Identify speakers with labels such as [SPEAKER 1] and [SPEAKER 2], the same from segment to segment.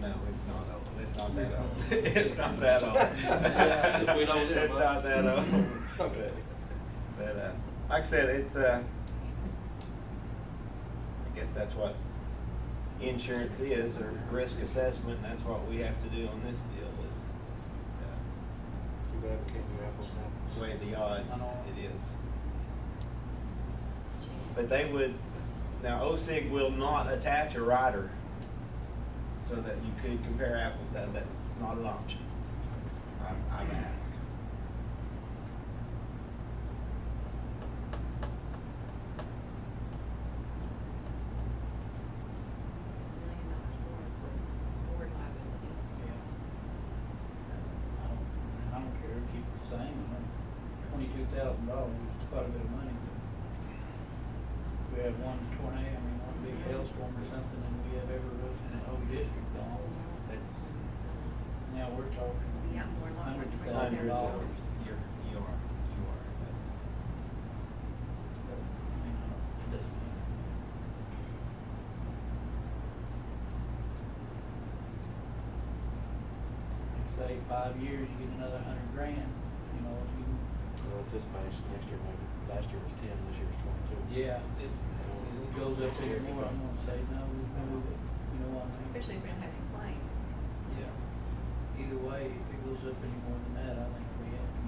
[SPEAKER 1] no, it's not old. It's not that old. It's not that old.
[SPEAKER 2] If we don't get it,
[SPEAKER 1] It's
[SPEAKER 2] bud.
[SPEAKER 1] not that old.
[SPEAKER 2] Okay.
[SPEAKER 1] But, uh, like I said, it's, uh, I guess that's what insurance is, or risk assessment, and that's what we have to do on this deal is, uh,
[SPEAKER 3] Too bad we can't do apples to apples.
[SPEAKER 1] weigh the odds,
[SPEAKER 3] I know.
[SPEAKER 1] it is. But they would, now OSIG will not attach a rider so that you could compare apples, that, that's not an option. I'm, I'm asked.
[SPEAKER 4] million dollars more for board liability. So,
[SPEAKER 5] I don't, I don't care, keep it the same, twenty-two thousand dollars, is quite a bit of money, but if we had one tornado, I mean, one big hailstorm or something, and we have every roof in the whole district gone,
[SPEAKER 1] That's
[SPEAKER 4] it's gonna-
[SPEAKER 5] now we're talking
[SPEAKER 4] Yeah, we're not-
[SPEAKER 5] hundreds of thousands
[SPEAKER 1] hundreds of
[SPEAKER 5] of
[SPEAKER 1] dollars.
[SPEAKER 5] dollars.
[SPEAKER 1] You're, you are, you are, that's.
[SPEAKER 5] I mean, I don't- it doesn't matter. Like Say five years, you get another hundred grand, you know, if you,
[SPEAKER 3] Well, at this pace, next year maybe, last year was ten, this year's twenty-two.
[SPEAKER 5] yeah, it it goes up even more, I'm gonna say, no, we move it, you know what I mean?
[SPEAKER 4] Especially if we don't have any claims.
[SPEAKER 5] Yeah. Either way, if it goes up any more than that, I think we have to.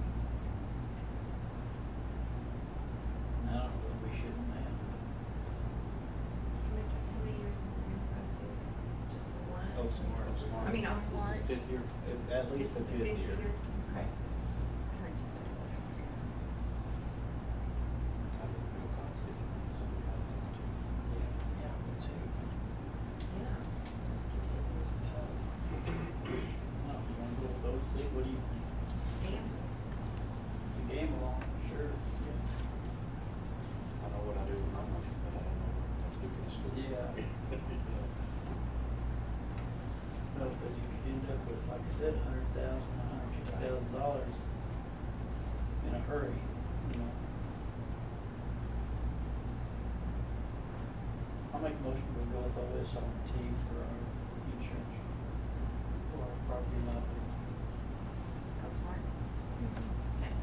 [SPEAKER 5] And I don't know that we shouldn't have, but
[SPEAKER 4] How many, how many years have we been OSU? Just the one?
[SPEAKER 1] Oh, smart.
[SPEAKER 4] I mean, I'm
[SPEAKER 3] This is the
[SPEAKER 4] smart.
[SPEAKER 3] fifth year.
[SPEAKER 1] At- At
[SPEAKER 4] This
[SPEAKER 1] least a
[SPEAKER 4] is the
[SPEAKER 1] fifth year.
[SPEAKER 4] Correct. I heard you said it.
[SPEAKER 3] I didn't feel confident that somebody had it done too.
[SPEAKER 5] yeah, but too.
[SPEAKER 4] Yeah.
[SPEAKER 5] It's tough. Well, you wanna go with those, see, what do you think?
[SPEAKER 4] Damn.
[SPEAKER 5] It's a game along, sure.
[SPEAKER 3] I know what I do with my money, but I don't know what's good for the school.
[SPEAKER 5] Yeah. No, cause you could end up with, like I said, a hundred thousand, a hundred fifty thousand dollars in a hurry, you know? I'll make a motion to go with OSRT for our insurance, for our property liability.
[SPEAKER 4] Go smart. Okay.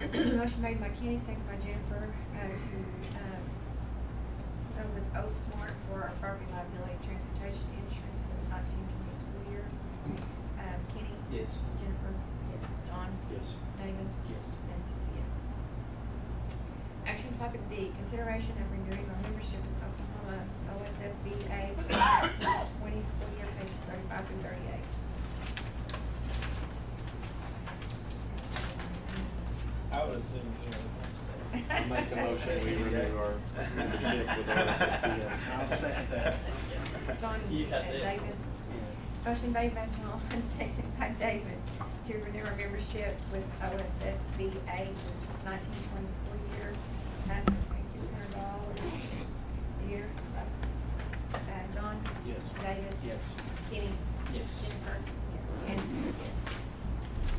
[SPEAKER 6] Motion made by Kenny, second by Jennifer, uh, to, um, go with O-Smart for our property liability transportation insurance for the nineteen twenty school year. Um, Kenny?
[SPEAKER 5] Yes.
[SPEAKER 6] Jennifer? Yes. John?
[SPEAKER 3] Yes.
[SPEAKER 6] David?
[SPEAKER 5] Yes.
[SPEAKER 6] And Susie, yes. Action topic D, consideration of renewing our membership with Oklahoma OSSBA for the twenty school year, pages thirty-five through thirty-eight.
[SPEAKER 1] I would assume, you know.
[SPEAKER 3] I make the motion, we renew our membership with OSSBA.
[SPEAKER 1] I'll second that.
[SPEAKER 6] John
[SPEAKER 5] You
[SPEAKER 6] and
[SPEAKER 5] had that.
[SPEAKER 6] David. Motion made by John, second by David, to renew our membership with OSSBA for nineteen twenty school year, nine hundred twenty-six hundred dollars a year. Uh, John?
[SPEAKER 3] Yes.
[SPEAKER 6] David?
[SPEAKER 1] Yes.
[SPEAKER 6] Kenny?
[SPEAKER 5] Yes.
[SPEAKER 6] Jennifer? Yes. And Susie, yes.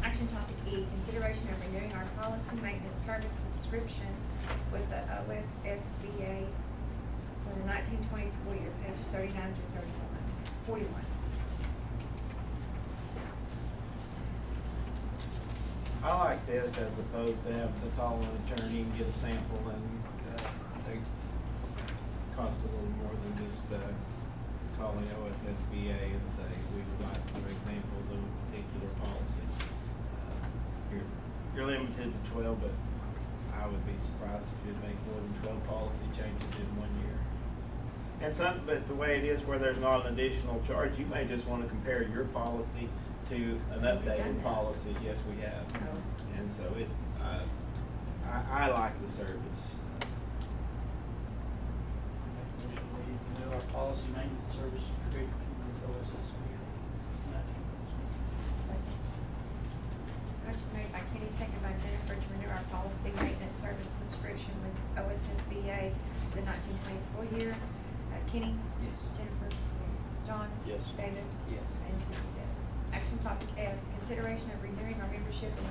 [SPEAKER 6] Action topic E, consideration of renewing our policy maintenance service subscription with the OSSBA for the nineteen twenty school year, pages thirty-nine to thirty-one, forty-one.
[SPEAKER 1] I like this as opposed to having to call an attorney and get a sample and, uh, they cost a little more than just, uh, calling OSSBA and say, we would like some examples of a particular policy. Uh, You're, you're limited to twelve, but I would be surprised if you'd make more than twelve policy changes in one year. And some, but the way it is where there's not an additional charge, you may just wanna compare your policy to an
[SPEAKER 4] done
[SPEAKER 1] updated
[SPEAKER 4] that.
[SPEAKER 1] policy. Yes, we have.
[SPEAKER 4] So,
[SPEAKER 1] And so it, uh, I, I like the service.
[SPEAKER 5] Make a motion to renew our policy maintenance service agreement with OSSBA. Nineteen percent.
[SPEAKER 4] second.
[SPEAKER 6] Motion made by Kenny, second by Jennifer, to renew our policy maintenance service subscription with OSSBA for the nineteen twenty school year. Uh, Kenny?
[SPEAKER 5] Yes.
[SPEAKER 6] Jennifer? John?
[SPEAKER 3] Yes.
[SPEAKER 6] David?
[SPEAKER 5] Yes.
[SPEAKER 6] And Susie, yes. Action topic F, consideration of renewing our membership in the